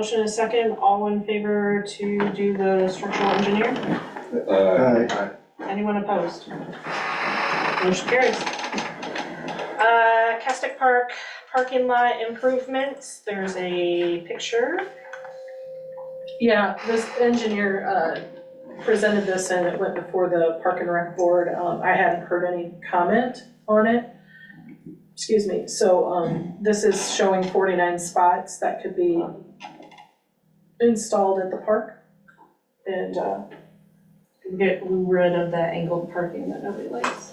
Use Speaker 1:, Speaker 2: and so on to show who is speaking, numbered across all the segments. Speaker 1: Motion is second, all in favor to do the structural engineer?
Speaker 2: Aye.
Speaker 1: Anyone opposed? Motion carries. Uh, Castic Park parking lot improvements, there's a picture.
Speaker 3: Yeah, this engineer uh, presented this and it went before the Park and Rec Board. Um, I hadn't heard any comment on it. Excuse me, so um, this is showing forty-nine spots that could be installed at the park. And uh,
Speaker 4: Get rid of that angled parking that nobody likes.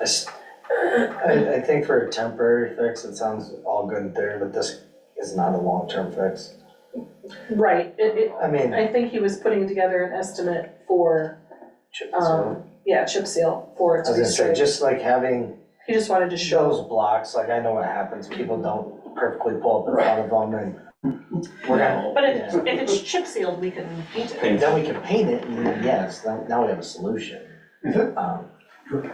Speaker 5: I s- I, I think for a temporary fix, it sounds all good there, but this is not a long-term fix.
Speaker 3: Right, it,
Speaker 5: I
Speaker 3: it,
Speaker 5: mean,
Speaker 3: I think he was putting together an estimate for,
Speaker 5: chip
Speaker 3: um, yeah, chip seal for it
Speaker 5: I
Speaker 3: to
Speaker 5: was
Speaker 3: be
Speaker 5: gonna say,
Speaker 3: straight.
Speaker 5: just like having
Speaker 3: He just wanted to show,
Speaker 5: those blocks, like I know what happens, people don't perfectly pull up in front of them and we're gonna,
Speaker 1: But if, if it's chip sealed, we can paint it.
Speaker 5: then we can paint it and then, yes, then- now we have a solution.
Speaker 2: Is
Speaker 3: Mm-hmm.
Speaker 2: that,
Speaker 5: Um,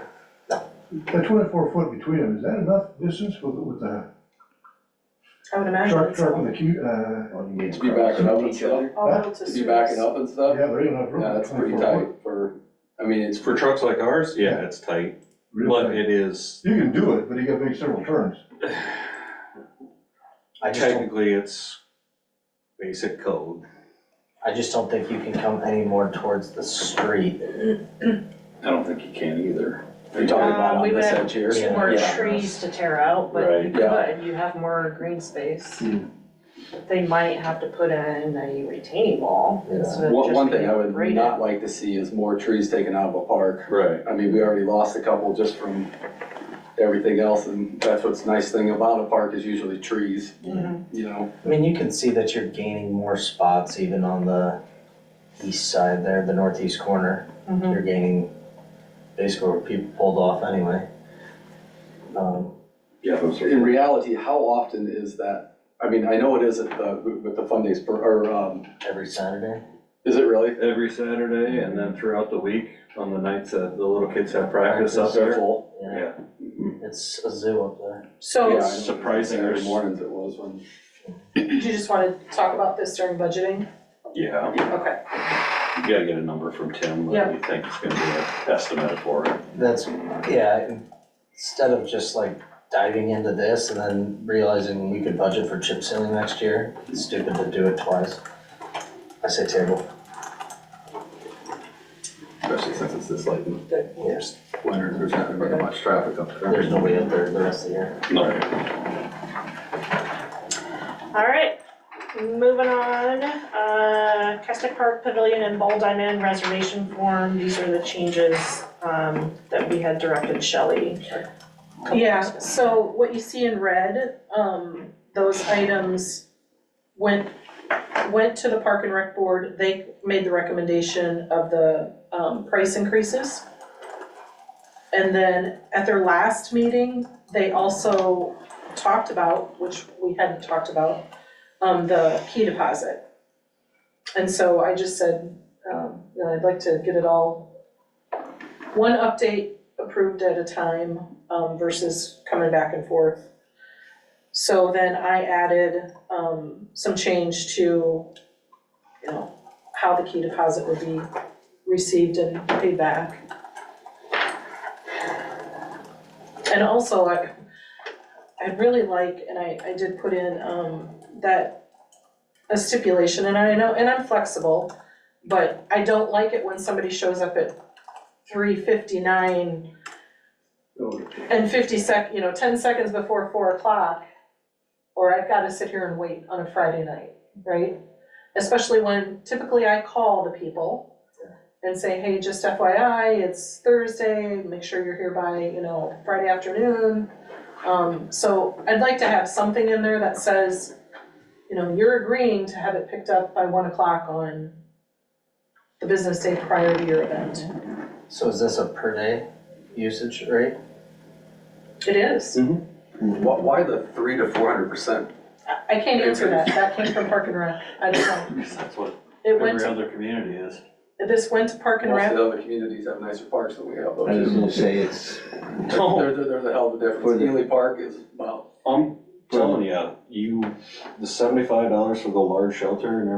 Speaker 2: that twenty-four foot between them, is that enough distance with, with the
Speaker 3: I would imagine,
Speaker 2: truck,
Speaker 3: it's
Speaker 2: truck
Speaker 3: all
Speaker 2: and the cute, uh?
Speaker 6: To be backing up and stuff,
Speaker 3: all to
Speaker 6: to be backing up and
Speaker 2: Yeah,
Speaker 6: stuff,
Speaker 2: there ain't enough room.
Speaker 6: yeah, that's pretty
Speaker 2: 24
Speaker 6: tight
Speaker 2: foot.
Speaker 6: for, I mean, it's,
Speaker 7: For trucks like ours, yeah, it's tight,
Speaker 2: Real
Speaker 7: but
Speaker 2: tight.
Speaker 7: it is,
Speaker 2: You can do it, but you gotta make several turns.
Speaker 5: I just don't,
Speaker 7: technically, it's basic code.
Speaker 5: I just don't think you can come any more towards the street.
Speaker 6: I don't think you can either.
Speaker 5: You're talking about
Speaker 1: Um, we
Speaker 5: on
Speaker 1: would
Speaker 5: this
Speaker 1: have
Speaker 5: edge here?
Speaker 1: Two more
Speaker 6: Yeah.
Speaker 1: trees to tear out, but
Speaker 7: Right.
Speaker 1: you
Speaker 6: Yeah.
Speaker 1: could, you have more green space.
Speaker 6: Hmm.
Speaker 1: They might have to put in a retaining wall
Speaker 5: Yeah.
Speaker 1: instead of
Speaker 6: One,
Speaker 1: just
Speaker 6: one thing
Speaker 1: being
Speaker 6: I would
Speaker 1: graded.
Speaker 6: not like to see is more trees taken out of a park.
Speaker 7: Right.
Speaker 6: I mean, we already lost a couple just from everything else, and that's what's nice thing about a park is usually trees,
Speaker 1: Mhm.
Speaker 6: you know?
Speaker 5: I mean, you can see that you're gaining more spots even on the east side there, the northeast corner.
Speaker 1: Mhm.
Speaker 5: You're gaining basically where people pulled off anyway. Um,
Speaker 6: Yeah, but in reality, how often is that? I mean, I know it is at the, with the fun days, per- or, um,
Speaker 5: every Saturday.
Speaker 6: is it really?
Speaker 7: Every Saturday and then throughout the week, on the nights that the little kids have practice up
Speaker 6: They're
Speaker 7: there.
Speaker 6: full.
Speaker 5: Yeah, it's a zoo up there.
Speaker 3: So,
Speaker 6: Yeah, I know.
Speaker 7: surprising.
Speaker 6: Saturday mornings it was when.
Speaker 3: you just wanna talk about this during budgeting?
Speaker 7: Yeah,
Speaker 3: Okay.
Speaker 7: you gotta get a number from Tim,
Speaker 3: Yeah.
Speaker 7: what you think is gonna be an estimate for it.
Speaker 5: That's, yeah, instead of just like diving into this and then realizing we could budget for chip sealing next year, it's stupid to do it twice. I say table,
Speaker 6: Especially since it's this late in
Speaker 5: there's,
Speaker 6: winter, there's not very much traffic up
Speaker 5: there's nobody up there the rest of the year.
Speaker 1: All right, moving on, uh, Castic Park Pavilion and Ball Diamond reservation form, these are the changes, um, that we had directed Shelley.
Speaker 3: Yeah, so what you see in red, um, those items went, went to the Park and Rec Board, they made the recommendation of the, um, price increases. And then at their last meeting, they also talked about, which we hadn't talked about, um, the key deposit. And so I just said, um, you know, I'd like to get it all, one update approved at a time, um, versus coming back and forth. So then I added, um, some change to, you know, how the key deposit would be received and paid back. And also, I, I really like, and I, I did put in, um, that a stipulation, and I know, and I'm flexible, but I don't like it when somebody shows up at three fifty-nine and fifty sec, you know, ten seconds before four o'clock, or I've gotta sit here and wait on a Friday night, right? Especially when typically I call the people and say, hey, just FYI, it's Thursday, make sure you're here by, you know, Friday afternoon. Um, so I'd like to have something in there that says, you know, you're agreeing to have it picked up by one o'clock on the business day prior to your event.
Speaker 5: So is this a per day usage rate?
Speaker 3: It is.
Speaker 6: Why, why the three to four hundred percent?
Speaker 3: I- I can't answer that, that came from Park and Rec, I don't know.
Speaker 7: That's what
Speaker 3: It went,
Speaker 7: every other community is.
Speaker 3: this went to Park and
Speaker 6: Most of
Speaker 3: Rec,
Speaker 6: the other communities have nicer parks than we have, though.
Speaker 8: I was gonna say, it's,
Speaker 6: There, there- there's a hell of a
Speaker 8: For
Speaker 6: difference.
Speaker 8: the-
Speaker 6: Ely Park is, well,
Speaker 7: Um, telling you, you, the seventy-five dollars for the large shelter and